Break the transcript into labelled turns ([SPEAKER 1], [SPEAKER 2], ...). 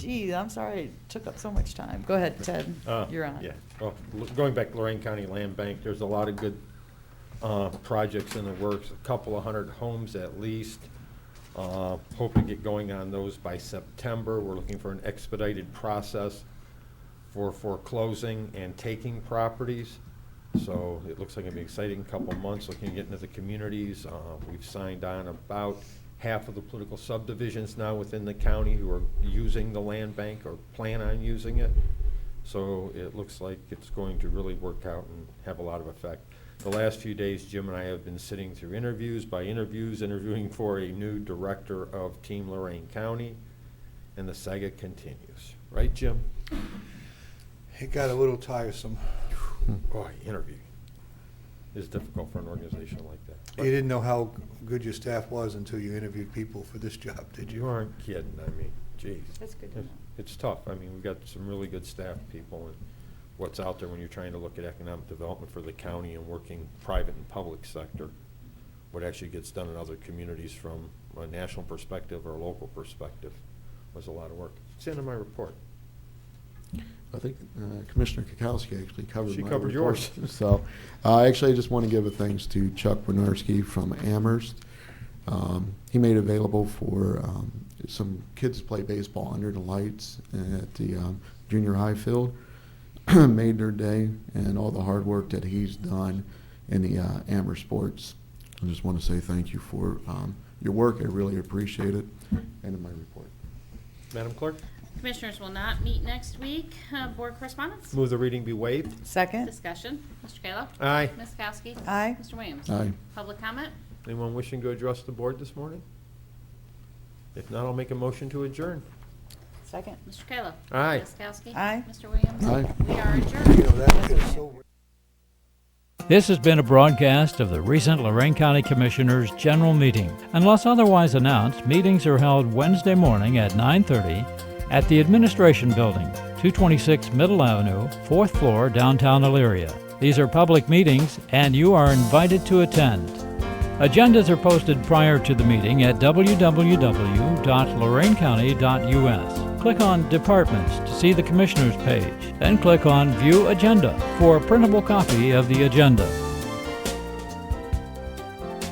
[SPEAKER 1] Gee, I'm sorry it took up so much time. Go ahead, Ted.
[SPEAKER 2] Uh,
[SPEAKER 1] You're on.
[SPEAKER 2] Yeah, well, l- going back to Lorraine County Land Bank, there's a lot of good uh, projects in the works, a couple of hundred homes at least. Uh, Hope to get going on those by September. We're looking for an expedited process for foreclosing and taking properties. So it looks like it'll be an exciting couple of months, looking at getting into the communities. Uh, We've signed on about half of the political subdivisions now within the county who are using the land bank or plan on using it. So it looks like it's going to really work out and have a lot of effect. The last few days, Jim and I have been sitting through interviews by interviews, interviewing for a new director of Team Lorraine County, and the saga continues. Right, Jim?
[SPEAKER 3] It got a little tiresome.
[SPEAKER 2] Boy, interview is difficult for an organization like that.
[SPEAKER 3] You didn't know how good your staff was until you interviewed people for this job, did
[SPEAKER 2] You
[SPEAKER 3] you?
[SPEAKER 2] aren't kidding, I mean, geez.
[SPEAKER 1] That's good to
[SPEAKER 2] It's-
[SPEAKER 1] know.
[SPEAKER 2] It's tough. I mean, we've got some really good staff people, and what's out there when you're trying to look at economic development for the county and working private and public sector, what actually gets done in other communities from a national perspective or a local perspective was a lot of work. It's in my report.
[SPEAKER 4] I think uh, Commissioner Kukowski actually covered
[SPEAKER 2] She
[SPEAKER 4] my
[SPEAKER 2] covered
[SPEAKER 4] report.
[SPEAKER 2] yours.
[SPEAKER 4] So, uh, actually, I just want to give a thanks to Chuck Winarski from Amherst. Um, He made available for um, some kids to play baseball under the lights at the um, junior high field. Made their day and all the hard work that he's done in the uh, Amherst sports. I just want to say thank you for um, your work. I really appreciate it. End of my report.
[SPEAKER 2] Madam Clerk,
[SPEAKER 5] Commissioners will not meet next week. Uh, Board correspondence?
[SPEAKER 2] move the reading be waived.
[SPEAKER 1] Second?
[SPEAKER 5] Discussion. Mr. Kayla?
[SPEAKER 2] Aye.
[SPEAKER 5] Ms. Kowski?
[SPEAKER 1] Aye.
[SPEAKER 5] Mr. Williams?
[SPEAKER 4] Aye.
[SPEAKER 5] Public comment?
[SPEAKER 2] Anyone wishing to address the board this morning? If not, I'll make a motion to adjourn.
[SPEAKER 1] Second?
[SPEAKER 5] Mr. Kayla?
[SPEAKER 2] Aye.
[SPEAKER 5] Ms. Kowski?
[SPEAKER 1] Aye.
[SPEAKER 5] Mr. Williams?
[SPEAKER 4] Aye.
[SPEAKER 5] We are adjourned.
[SPEAKER 3] You know, that is so.
[SPEAKER 6] This has been a broadcast of the recent Lorraine County Commissioners' General Meeting. Unless otherwise announced, meetings are held Wednesday morning at 9:30 at the Administration Building, 226 Middle Avenue, 4th floor, downtown Elyria. These are public meetings and you are invited to attend. Agendas are posted prior to the meeting at www.lorainecounty.us. Click on Departments to see the Commissioners page, then click on View Agenda for a printable copy of the agenda.